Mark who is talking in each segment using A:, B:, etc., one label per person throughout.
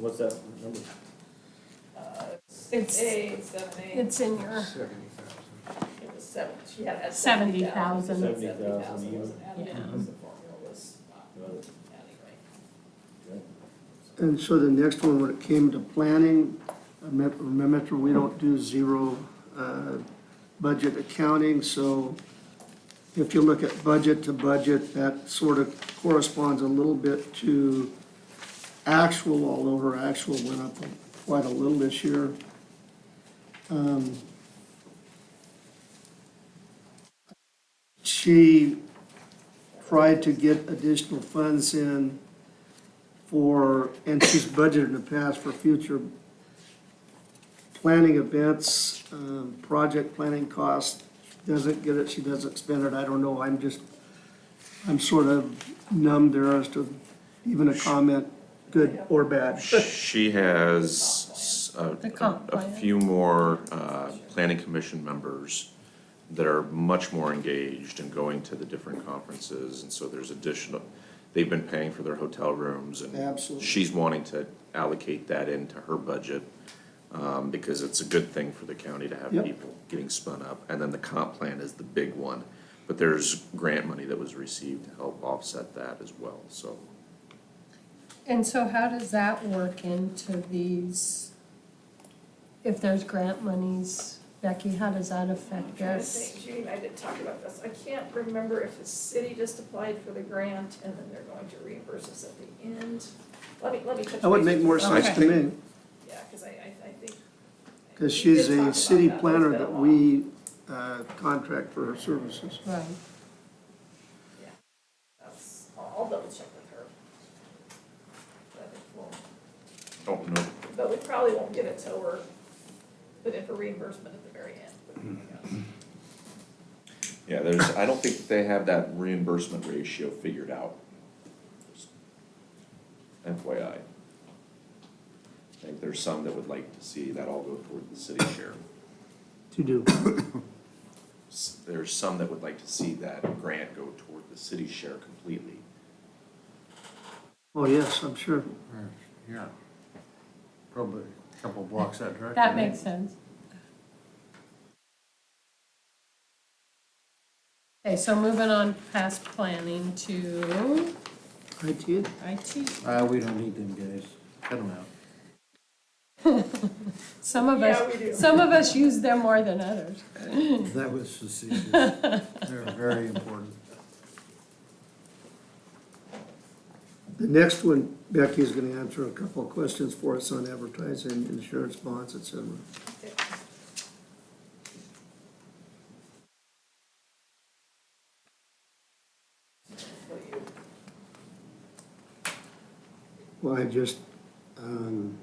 A: What's that number?
B: Six, eight, seven, eight,
C: It's in your,
D: Seventy thousand.
B: it was seven, she had that seventy
C: Seventy
B: thousand.
C: thousand.
A: Seventy thousand a year.
B: wasn't added in,
C: Yeah.
B: because the formula was not
A: Right.
B: adding right.
A: Okay.
E: And so the next one, when it came to planning, remem- remember, we don't do zero uh, budget accounting, so if you look at budget to budget, that sort of corresponds a little bit to actual, although her actual went up quite a little this year. Um, She tried to get additional funds in for, and she's budgeted in the past for future planning events, um, project planning costs. Doesn't get it, she doesn't spend it, I don't know, I'm just, I'm sort of numb there as to even a comment, good or bad.
F: She has uh,
C: The
F: a,
C: comp
F: a
C: plan.
F: few more, uh, planning commission members that are much more engaged in going to the different conferences, and so there's additional, they've been paying for their hotel rooms, and
E: Absolutely.
F: she's wanting to allocate that into her budget, um, because it's a good thing for the county to have
E: Yep.
F: people getting spun up, and then the comp plan is the big one, but there's grant money that was received to help offset that as well, so.
C: and so how does that work into these? If there's grant monies, Becky, how does that
B: I'm
C: affect
B: trying to
C: this?
B: think, Judy and I did talk about this, I can't remember if the city just applied for the grant and then they're going to reimburse us at the end. Let me, let me touch
E: That would
B: base
E: make
B: with
E: more
B: you.
E: sense to me,
B: Yeah, because I, I, I think. we
E: because
B: did
E: she's
B: talk
E: a
B: about
E: city
B: that. It's
E: planner
B: been a
E: that
B: while.
E: we uh, contract for her services.
C: Right,
B: That's, I'll, I'll double check with her. But it won't-
F: Don't know
B: But we probably won't get it till we're, put in for reimbursement at the very end.
F: Yeah, there's, I don't think that they have that reimbursement ratio figured out. Just FYI. I think there's some that would like to see that all go toward the city share.
E: To do.
F: S- There's some that would like to see that grant go toward the city share completely.
E: Oh, yes, I'm sure.
D: Yeah. Probably a couple blocks that direction.
C: that makes sense. Okay, so moving on past planning to
E: I did.
C: IT.
D: Uh, we don't need them guys. Cut them out.
C: Some of
B: Yeah, we do.
C: us, some of us use them more than others.
D: That was facetious. They're very important.
E: The next one, Becky is gonna answer a couple of questions for us on advertising, insurance bonds, et cetera. Well, I just, um,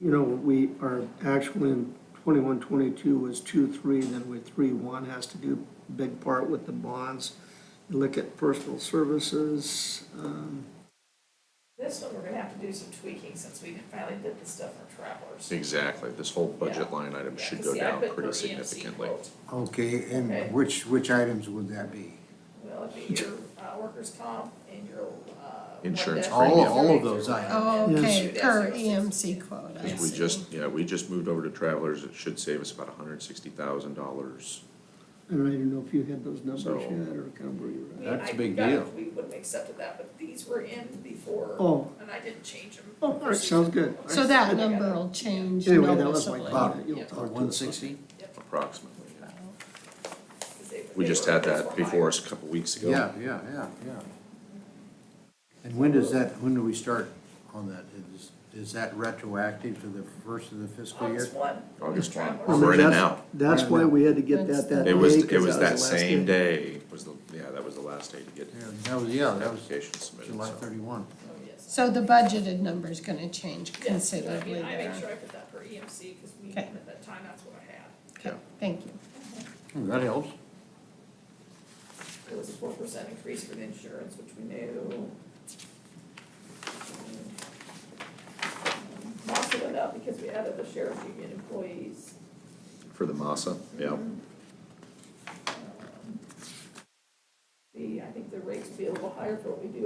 E: you know, we are actually in twenty-one, twenty-two was two, three, then we three, one has to do big part with the bonds. You Look at personal services, um,
B: This one, we're gonna have to do some tweaking since we finally did the stuff for travelers.
F: Exactly, this whole
B: budget
F: line item
B: Yeah, 'cause see, I put per EMC
F: Oh,
B: quote.
D: Okay,
B: Okay.
D: and which, which items would that be?
B: Well, it'd be your, uh, workers' comp and your, uh.
F: Insurance
B: one death-
D: All- all of those items.
C: Oh, okay,
B: Yes.
C: per EMC quote, I
F: Because we
C: see.
F: just, yeah, we just moved over to Travelers, it should save us about hundred and sixty thousand dollars.
E: and I didn't know if you had those numbers
F: So-
E: yet or kind of where you're at.
B: We-
D: That's a
B: I
D: big
B: got-
D: deal.
B: We wouldn't accept that, but these were in before.
E: Oh.
B: And I didn't change them.
E: Oh, all right, sounds good.
C: So that number will change
E: Anyway, that was my
C: noticeably.
E: comment,
B: uh, Yeah.
E: you'll talk to us.
D: One sixty?
F: Approximately, yeah.
B: 'cause they-
F: We
B: they
F: just
B: were-
F: had
B: those
F: that
B: were
F: before
B: higher.
F: us a couple weeks ago.
D: Yeah, yeah, yeah, yeah. And when does that, when do we start on that? Is, is that retroactive to the first of the fiscal year?
B: August one.
F: August one.
B: Travelers.
E: I mean,
F: We're in and
E: that's-
F: out.
E: That's why we had to get that that day.
F: It was, it
E: 'cause
F: was that
E: the last
F: same day, was the, yeah, that was the last day to get
D: Yeah, that was, yeah, that was
F: application submitted,
D: July
F: so.
D: thirty-one.
B: Oh, yes.
C: So the budgeted number's gonna change
B: Yes, I mean,
C: considerably
B: I
C: there.
B: make sure I put that E for EMC, because we,
C: Okay.
B: at that time, that's what I had.
C: Okay, thank you.
D: Hmm, That helps.
B: It was a four percent increase for the insurance, which we knew. Um, Most of it up because we added the sheriff union employees.
F: For the MASA, yeah.
B: Um, The, I think the rates will be a little higher for what we do